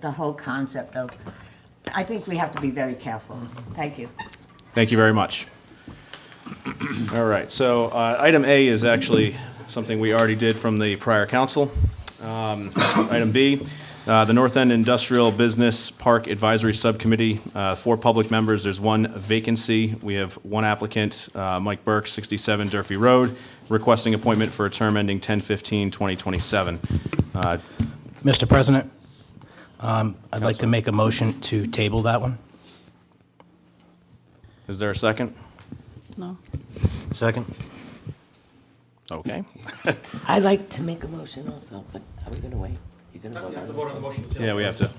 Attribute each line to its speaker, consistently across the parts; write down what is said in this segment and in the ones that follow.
Speaker 1: the whole concept of, I think we have to be very careful. Thank you.
Speaker 2: Thank you very much. All right, so uh, item A is actually something we already did from the prior council. Um, Item B, uh, the North End Industrial Business Park Advisory Subcommittee, uh, four public members, there's one vacancy. We have one applicant, uh, Mike Burke, 67 Durfee Road, requesting appointment for a term ending 10/15/2027. Uh,
Speaker 3: Mr. President, um, I'd like to make a motion to table that one.
Speaker 2: Is there a second?
Speaker 4: No.
Speaker 5: Second?
Speaker 2: Okay.
Speaker 6: I'd like to make a motion also, but are we going to wait? You're going to vote on this?
Speaker 2: Yeah, we have to.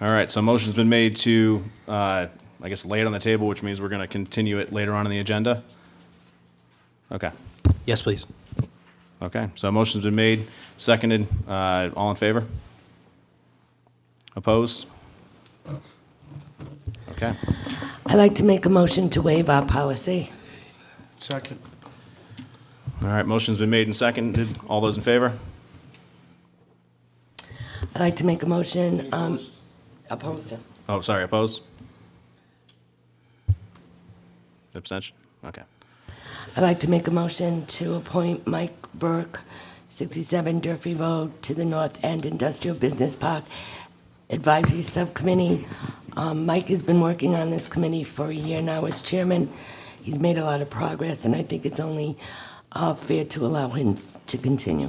Speaker 2: All right, so motion's been made to, uh, I guess, lay it on the table, which means we're going to continue it later on in the agenda? Okay,
Speaker 3: Yes, please.
Speaker 2: okay, so motion's been made, seconded, uh, all in favor? Opposed? Okay,
Speaker 6: I'd like to make a motion to waive our policy.
Speaker 5: Second.
Speaker 2: all right, motion's been made and seconded, all those in favor?
Speaker 6: I'd like to make a motion, um, opposed to.
Speaker 2: Oh, sorry, opposed? Abstention? Okay,
Speaker 6: I'd like to make a motion to appoint Mike Burke, 67 Durfee Road, to the North End Industrial Business Park Advisory Subcommittee. Um, Mike has been working on this committee for a year now as chairman. He's made a lot of progress, and I think it's only uh, fair to allow him to continue.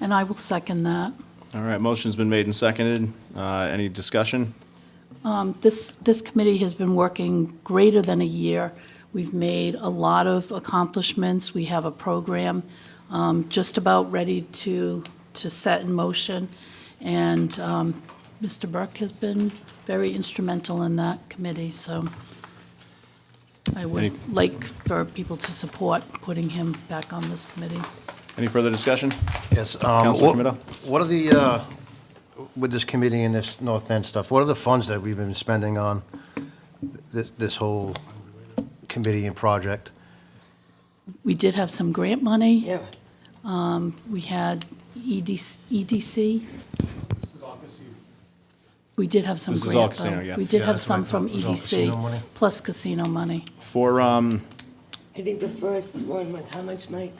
Speaker 4: And I will second that.
Speaker 2: all right, motion's been made and seconded, uh, any discussion?
Speaker 4: Um, This, this committee has been working greater than a year. We've made a lot of accomplishments. We have a program um, just about ready to, to set in motion. And um, Mr. Burke has been very instrumental in that committee, so I would
Speaker 2: Any-
Speaker 4: like for people to support putting him back on this committee.
Speaker 2: Any further discussion?
Speaker 5: Yes. um,
Speaker 2: Counselor
Speaker 5: what-
Speaker 2: Camino?
Speaker 5: What are the, uh, with this committee and this North End stuff, what are the funds that we've been spending on this, this whole committee and project?
Speaker 4: We did have some grant money.
Speaker 6: Yeah.
Speaker 4: We had E EDC. EDC. We did have some
Speaker 2: This
Speaker 4: grant,
Speaker 2: is
Speaker 4: though.
Speaker 2: all casino, yeah.
Speaker 4: We did
Speaker 5: Yeah,
Speaker 4: have
Speaker 5: that's what I
Speaker 4: some from
Speaker 5: thought. It was all casino money?
Speaker 4: EDC, plus casino money.
Speaker 2: For, um,
Speaker 6: I think the first one was, how much, Mike?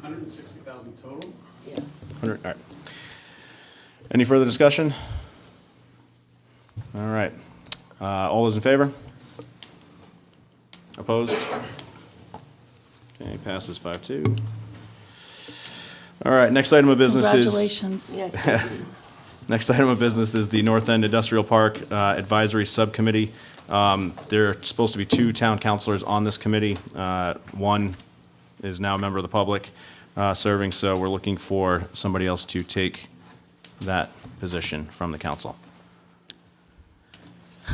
Speaker 7: 160,000 total.
Speaker 6: Yeah.
Speaker 2: 100, all right. Any further discussion? All right. Uh, All those in favor? Opposed? Okay, passes 5-2. All right, next item of business is...
Speaker 4: Congratulations.
Speaker 6: Yeah.
Speaker 2: Next item of business is the North End Industrial Park uh, Advisory Subcommittee. Um, There are supposed to be two town councilors on this committee. Uh, One is now a member of the public uh, serving, so we're looking for somebody else to take that position from the council.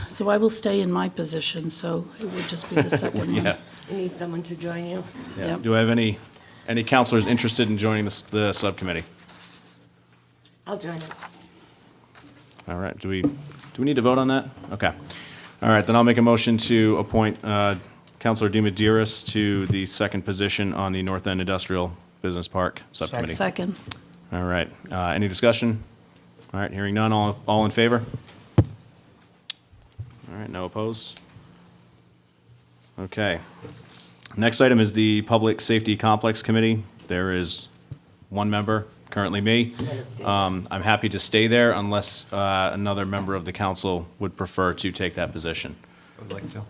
Speaker 4: So I will stay in my position, so it would just be the second one.
Speaker 2: Yeah.
Speaker 6: You need someone to join you?
Speaker 2: Yeah.
Speaker 4: Yep.
Speaker 2: Do I have any, any counselors interested in joining this- the subcommittee?
Speaker 6: I'll join it.
Speaker 2: All right, do we, do we need to vote on that? Okay. All right, then I'll make a motion to appoint uh, Counselor Demidiris to the second position on the North End Industrial Business Park Subcommittee.
Speaker 4: Second.
Speaker 2: All right, uh, any discussion? All right, hearing none, all, all in favor? All right, no opposed? Okay. Next item is the Public Safety Complex Committee. There is one member, currently me. Um, I'm happy to stay there unless uh, another member of the council would prefer to take that position.
Speaker 5: I would like to.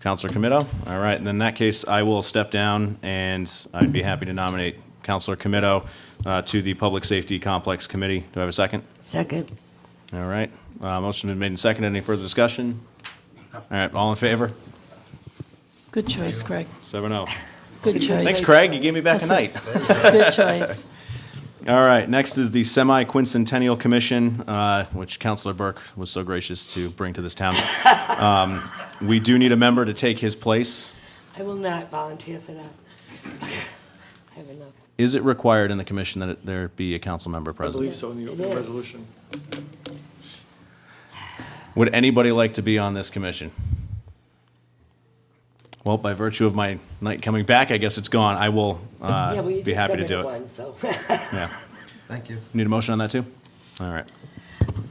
Speaker 2: Counselor Comito? All right, then in that case, I will step down, and I'd be happy to nominate Counselor Comito uh, to the Public Safety Complex Committee. Do I have a second?
Speaker 6: Second.
Speaker 2: All right, uh, motion's been made and seconded. Any further discussion? All right, all in favor?
Speaker 4: Good choice, Craig.
Speaker 2: Seven oh.
Speaker 4: Good choice.
Speaker 2: Thanks, Craig, you gave me back a night.
Speaker 4: Good choice.
Speaker 2: All right, next is the Semi-Quincentennial Commission, uh, which Counselor Burke was so gracious to bring to this town. Um, We do need a member to take his place.
Speaker 6: I will not volunteer for that. I have enough.
Speaker 2: Is it required in the commission that it- there be a council member
Speaker 7: I
Speaker 2: present?
Speaker 7: believe so in the
Speaker 6: It
Speaker 7: open
Speaker 6: is.
Speaker 7: resolution.
Speaker 2: Would anybody like to be on this commission? Well, by virtue of my night coming back, I guess it's gone. I will uh,
Speaker 6: Yeah, well, you
Speaker 2: be
Speaker 6: just
Speaker 2: happy to
Speaker 6: got rid
Speaker 2: do
Speaker 6: of
Speaker 2: it.
Speaker 6: one, so.
Speaker 2: Yeah.
Speaker 5: Thank you.
Speaker 2: Need a motion on that, too? All right.